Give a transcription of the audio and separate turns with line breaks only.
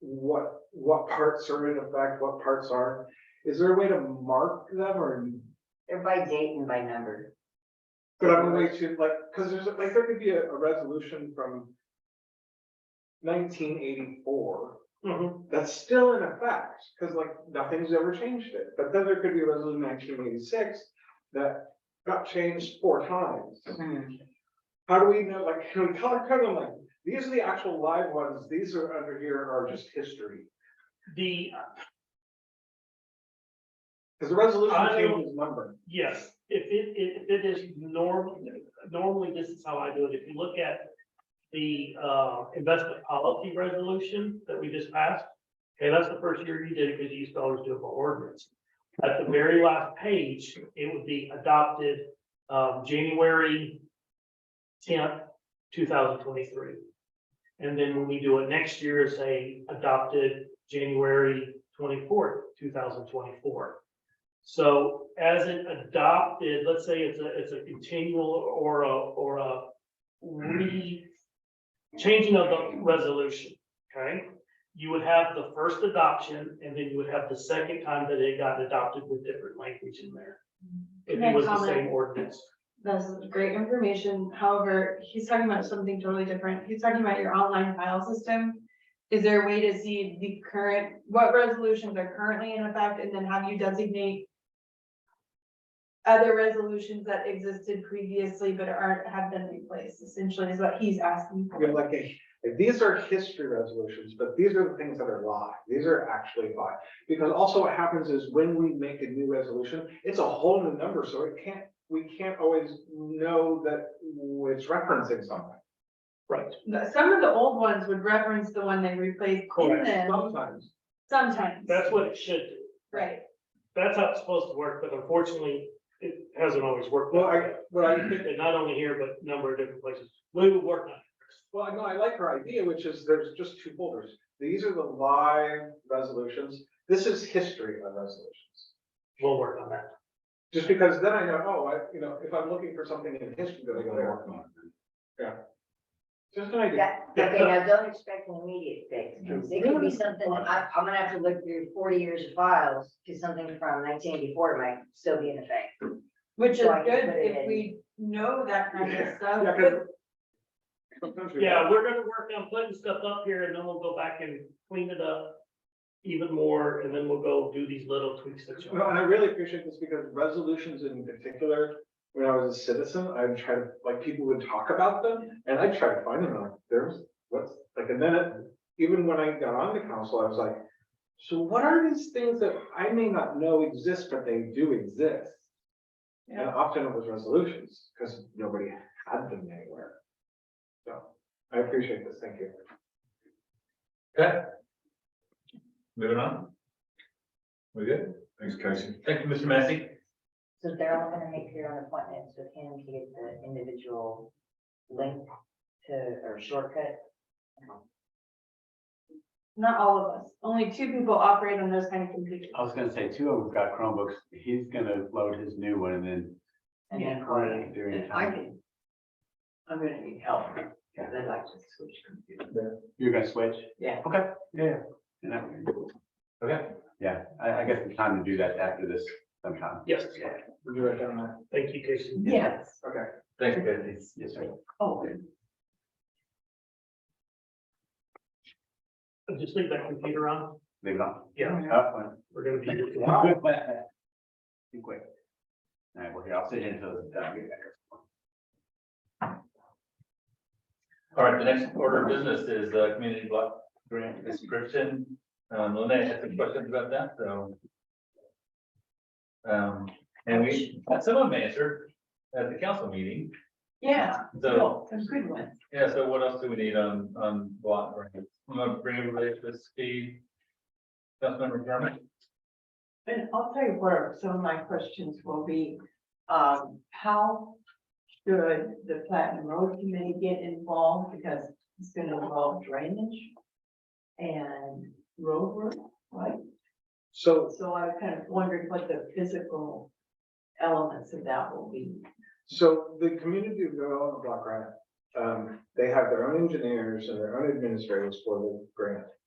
what, what parts are in effect, what parts aren't? Is there a way to mark them or,
They're by date and by number.
but I'm way to like, cause there's, like, there could be a, a resolution from nineteen eighty-four that's still in effect, cause like, nothing's ever changed it. But then there could be a resolution nineteen eighty-six that got changed four times.
Mhm.
How do we know, like, can we color code them, like, these are the actual live ones, these are under here are just history?
The,
Cause the resolution
I-
changes number.
yes, if it, if it is norm, normally this is how I do it. If you look at the, uh, investment policy resolution that we just passed, okay, that's the first year you did it because you used to always do it by ordinance. At the very last page, it would be adopted, um, January tenth, two thousand twenty-three. And then when we do it next year, say adopted January twenty-fourth, two thousand twenty-four. So as it adopted, let's say it's a, it's a continual or a, or a re, changing of the resolution, okay? You would have the first adoption and then you would have the second time that it got adopted with different language in there. If
Can
it
I
was the
comment?
same ordinance.
That's great information. However, he's talking about something totally different. He's talking about your online file system. Is there a way to see the current, what resolutions are currently in effect and then have you designate other resolutions that existed previously but aren't, have been replaced essentially is what he's asking.
We have like a, like, these are history resolutions, but these are the things that are live. These are actually live. Because also what happens is when we make a new resolution, it's a whole new number, so it can't, we can't always know that it's referencing something.
Right.
Some of the old ones would reference the one they replaced in them
Sometimes.
sometimes,
That's what it should do.
right?
That's how it's supposed to work, but unfortunately, it hasn't always worked. that
Well, I,
way.
what I think
And not only here, but a number of different places. We will work on it.
Well, I know, I like her idea, which is there's just two folders. These are the live resolutions. This is history of resolutions.
We'll work on that.
Just because then I know, oh, I, you know, if I'm looking for something in history that I go there. Yeah. Just an idea.
That, okay, now don't expect an immediate fix, because it could be something, that I, I'm gonna have to look through forty years of files, because something from nineteen eighty-four might still be in effect.
Which is
So I can
good
put it
if
in.
we know that kind of stuff,
Yeah, 'cause
but
sometimes we-
Yeah, we're gonna work on putting stuff up here and then we'll go back and clean it up even more, and then we'll go do these little tweaks that you.
No, and I really appreciate this because resolutions in particular, when I was a citizen, I would try to, like, people would talk about them and I would try to find them, and I'm like, there's, what's, like, and then it- even when I got on the council, I was like, so what are these things that I may not know exist, but they do exist? And
Yeah.
often it was resolutions, because nobody had them anywhere. So I appreciate this, thank you.
Okay. Moving on. We good? Thanks, Casey. Thank you, Mr. Massey.
So they're all gonna make their own appointments with him to get the individual link to, or shortcut.
not all of us, only two people operate on those kind of computers.
I was gonna say, two of them got Chromebooks, he's gonna load his new one and then.
And then call
run
you.
it During
I
time,
can, I'm gonna need help, because I'd like to switch computers.
you're gonna switch?
Yeah.
Okay, yeah, yeah. And that-
Okay.
Yeah, I, I guess it's time to do that after this sometime.
Yes,
Would you write down that?
thank you, Casey.
Yes.
Okay.
Thanks, Casey.
Yes, sir.
Oh,
Just leave that computer on.
Leave it on. Oh,
Yeah,
Oh,
Up one.
we're gonna be.
Be uh, quick. All right, well, here, I'll sit in until. uh, it's done.
All right, the next order of business is uh community block grant description. Um, Lene had some questions about that, so. Um, and we, some of them answered at the council meeting,
yeah,
so,
some good ones.
yeah, so what else do we need on, on block grants? I'm gonna bring everybody up to speed. Councilmember Berman?
And I'll tell you where some of my questions will be, um, how should the Platinum Road Committee get involved? Because it's gonna involve drainage and road work, right?
So
So I kind of wondered what the physical elements of that will be.
So the community development block grant, um, they have their own engineers and their own administrators for the grant.